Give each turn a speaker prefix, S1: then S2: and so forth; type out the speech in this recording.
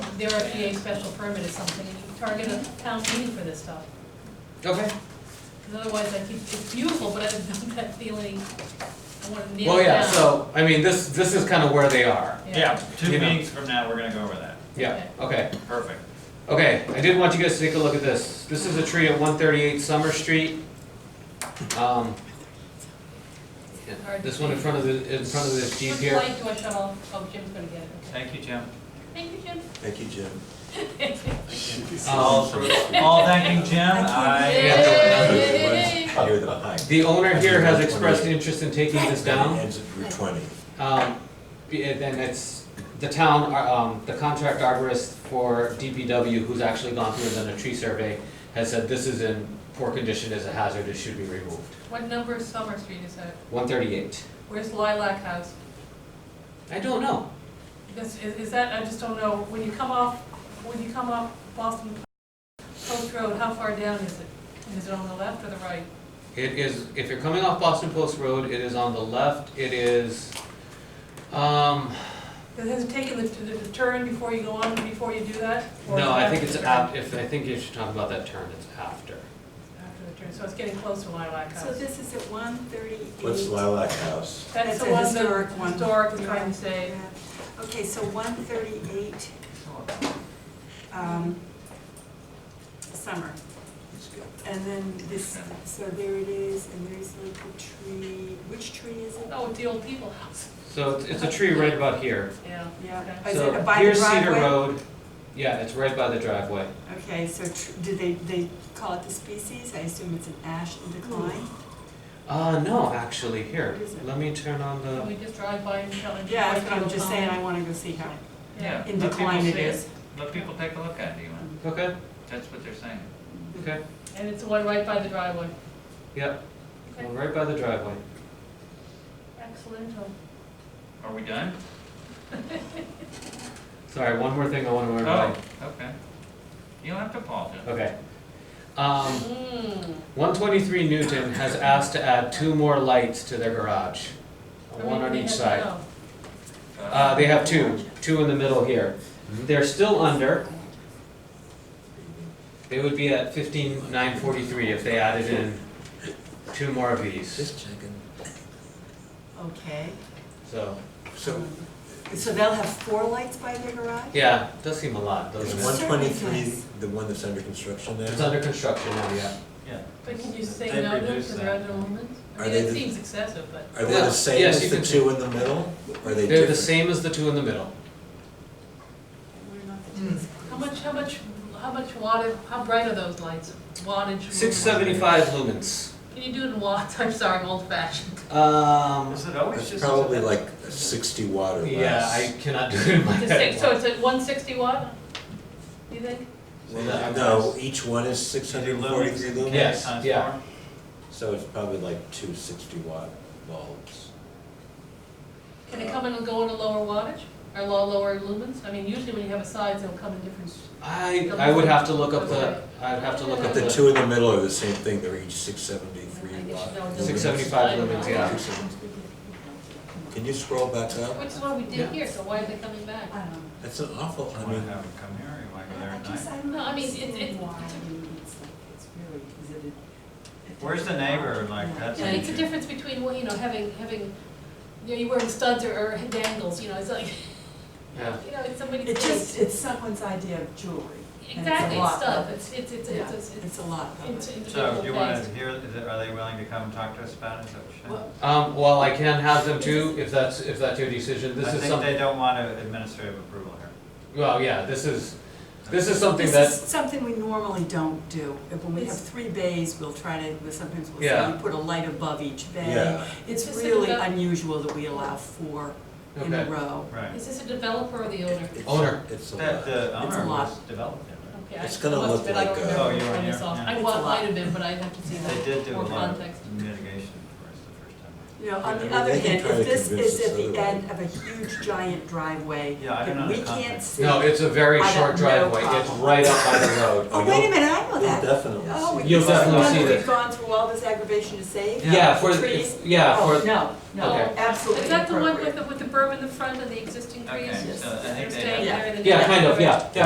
S1: their FAA special permit is something, and you target a town meeting for this stuff.
S2: Okay.
S1: Because otherwise, I keep, it's beautiful, but I have that feeling, I want to nail
S2: Well,
S1: it
S2: yeah,
S1: down.
S2: so, I mean, this, this is kind of where they are.
S3: Yeah, two
S2: You know.
S3: meetings from now, we're gonna go over that.
S2: Yeah, okay.
S3: Perfect.
S2: Okay, I did want you guys to take a look at this. This is a tree at one thirty-eight Summer Street. Um, This one in front of the, in front of this Jeep
S1: Which
S2: here.
S1: light do I shut off? Oh, Jim's gonna get it, okay.
S3: Thank you, Jim.
S1: Thank you, Jim.
S4: Thank you, Jim.
S3: All, all thanking Jim, I,
S1: Yay!
S4: You're the behind.
S2: The owner here has expressed interest in taking this
S4: And it
S2: down.
S4: Ends at Route twenty.
S2: Um, be- and then it's the town, uh, um, the contract arborist for DPW, who's actually gone through and done a tree survey, has said this is in poor condition, is a hazard, it should be removed.
S1: What number is Summer Street, is that,
S2: One thirty-eight.
S1: where's Lilac House?
S2: I don't know.
S1: This, is, is that, I just don't know, when you come off, when you come off Boston Post Road, how far down is it? And Is it on the left or the right?
S2: It is, if you're coming off Boston Post Road, it is on the left, it is, um,
S1: Does it taken the, the the turn before you go on, before you do that? Or is
S2: no,
S1: it
S2: I
S1: after
S2: think it's
S1: the turn?
S2: af, if, I think you should talk about that turn, it's after.
S1: After the turn, so it's getting close to Lilac
S5: So
S1: House.
S5: this is at one thirty-eight.
S4: What's Lilac House?
S1: That's the
S5: That's a
S1: one
S5: historic
S1: that,
S5: one.
S1: historic, I'm trying to say,
S5: Okay, so one thirty-eight, um, summer. And then this, so there it is, and there's like a tree, which tree is it?
S1: oh, it's the old people house,
S2: So it's, it's a tree right about here.
S1: yeah.
S5: Yeah.
S1: okay.
S5: Oh, Is it
S2: So
S5: by the
S2: here's Cedar
S5: driveway?
S2: Road, yeah, it's right by the driveway.
S5: Okay, so tr- do they, they call it the species? I assume it's an ash in decline?
S2: Uh, no, actually, here,
S5: What is it?
S2: let me turn on
S1: Can
S2: the,
S1: we just drive by and tell them?
S5: Yeah, that's what I'm just saying, I wanna go see how
S3: yeah.
S5: in
S3: let people
S5: decline it
S3: see
S5: is.
S3: Let people take a look at it, Ewan.
S2: okay,
S3: That's what they're saying.
S2: okay,
S1: And it's the one right by the driveway.
S2: yep,
S1: Okay.
S2: right by the driveway.
S1: Excellent.
S3: Are we done?
S2: Sorry, one more thing I wanna worry
S3: Oh,
S2: about.
S3: okay. You don't have to apologize.
S2: Okay. Um,
S1: Mm.
S2: 123 Newton has asked to add two more lights to their garage, one on each side. Uh, they have two, two in the middle here. They're still under. They would be at 15943 if they added in two more of these,
S4: checking.
S5: Okay,
S2: so,
S4: So
S5: so they'll have four lights by their garage?
S2: yeah, does seem a lot,
S4: is
S2: doesn't
S4: one
S2: it?
S4: twenty-three the one that's under construction now?
S2: It's under construction now, yeah.
S3: Yeah.
S1: But can you say
S3: They've
S1: no to
S3: reduced
S1: the other
S3: that.
S1: limits? I
S4: Are
S1: mean,
S4: they
S1: it
S4: the-
S1: seems excessive, but
S4: Are they the same
S2: Yes,
S4: as
S2: you
S4: the
S2: can-
S4: two in the middle? Or Are they
S2: They're the
S4: different?
S2: same as the two in the middle.
S5: We're not the two.
S1: how much, how much, how much wattage, how bright are those lights? Wattage?
S2: 675 lumens.
S1: Can you do it in watts? I'm sorry, I'm old fashioned.
S2: Um,
S3: Is it always
S4: It's
S3: just?
S4: probably like sixty watt or less.
S2: yeah, I cannot do it in my
S1: The
S2: head.
S1: six, so it's at one sixty watt? You think?
S4: Well, No, each one is six hundred and forty-three lumens?
S2: Yes, yeah.
S4: So it's probably like two sixty watt bulbs.
S1: Can it come in and go in a lower wattage or low, lower lumens? I mean, usually when you have a size, it'll come in different.
S2: I, I would have to look up the, I'd have to look up
S4: But the
S2: the,
S4: two in the middle are the same thing, they're each six
S1: I
S4: seventy-three
S1: guess you know,
S4: watt.
S1: the-
S2: 675 lumens, yeah.
S4: Can you scroll back up?
S1: Which is what we
S2: Yeah.
S1: did here, so why are they coming back?
S5: I don't know.
S4: That's an awful, I
S3: Want to
S4: mean,
S3: have them come here, or you want to go there
S5: I
S3: at
S5: just,
S3: night?
S5: I don't
S1: No, I mean, it's-
S5: understand
S1: it's-
S5: why you need something. It's really, is it a-
S3: Where's the neighbor? Like,
S5: Yeah.
S3: that's-
S1: Yeah, it's a difference between, well, you know, having, having, you know, you're wearing studs or, or dangles, you know, it's like,
S2: yeah.
S1: you know, it's somebody's.
S5: It just,
S1: face.
S5: it's someone's idea of jewelry. and
S1: Exactly,
S5: it's a
S1: it's
S5: lot of
S1: stuff,
S5: it.
S1: it's, it's, it's,
S5: Yeah,
S1: it's, it's,
S5: It's a lot of
S1: it's
S5: it.
S3: So
S1: individual
S3: do you want
S1: things.
S3: to hear, is it- are they willing to come talk to us about it? Is that what you're saying?
S5: Well,
S2: Um, well, I can have them too, if that's, if that's your decision, this
S3: I
S2: is
S3: think
S2: some,
S3: they don't want a administrative approval here.
S2: well, yeah, this is, this is something
S5: This is
S2: that,
S5: something we normally don't do. If- When we have
S1: It's-
S5: three bays, we'll try to, sometimes we'll
S2: Yeah.
S5: say we put a light above each bay.
S4: yeah,
S5: It's
S1: Just think
S5: really
S1: about-
S5: unusual that we allow four in a
S2: okay,
S5: row.
S3: Right.
S1: Is this a developer or the owner?
S4: it's,
S2: Owner.
S4: it's a
S3: That uh,
S4: lot.
S3: the
S5: It's a
S3: owner
S5: lot.
S3: was developed it, right?
S1: Okay, I
S4: It's gonna
S1: must
S4: look
S1: admit, I don't
S4: like a-
S1: remember
S3: Oh, you were
S1: when I
S3: here,
S1: saw it.
S3: yeah.
S1: I
S5: It's a
S1: want,
S5: lot.
S1: might have been, but I'd have to see
S3: They
S1: that
S3: did do a
S1: more
S3: lot
S1: context.
S3: of mitigation for us the first time.
S5: You know, on
S4: I
S5: the
S4: mean,
S5: other
S4: they can
S5: hand,
S4: try to
S5: if this
S4: convince
S5: is
S4: us
S5: at the
S4: otherwise.
S5: end of a huge giant driveway
S3: Yeah, I don't
S5: that we
S3: understand
S5: can't
S3: that.
S5: see.
S2: no, it's a very
S5: I have
S2: short
S5: no
S2: driveway, it's
S5: problem.
S2: right up by the road.
S5: Oh, wait a minute, I know
S4: You'll
S5: that.
S4: definitely
S5: Oh,
S4: see.
S5: we-
S2: You'll
S5: this is
S2: definitely
S5: one
S2: see
S5: that
S2: this.
S5: We've gone through all this aggravation to save.
S2: Yeah, for,
S5: Trees.
S2: yeah,
S5: Oh,
S2: for,
S5: No, no,
S2: Okay.
S5: absolutely
S1: Is that the one with the,
S5: inappropriate.
S1: with the berm in the front and the existing trees?
S3: Okay, so I think they
S1: Staying
S5: have-
S1: there and then-
S2: yeah, kind of, yeah, yeah.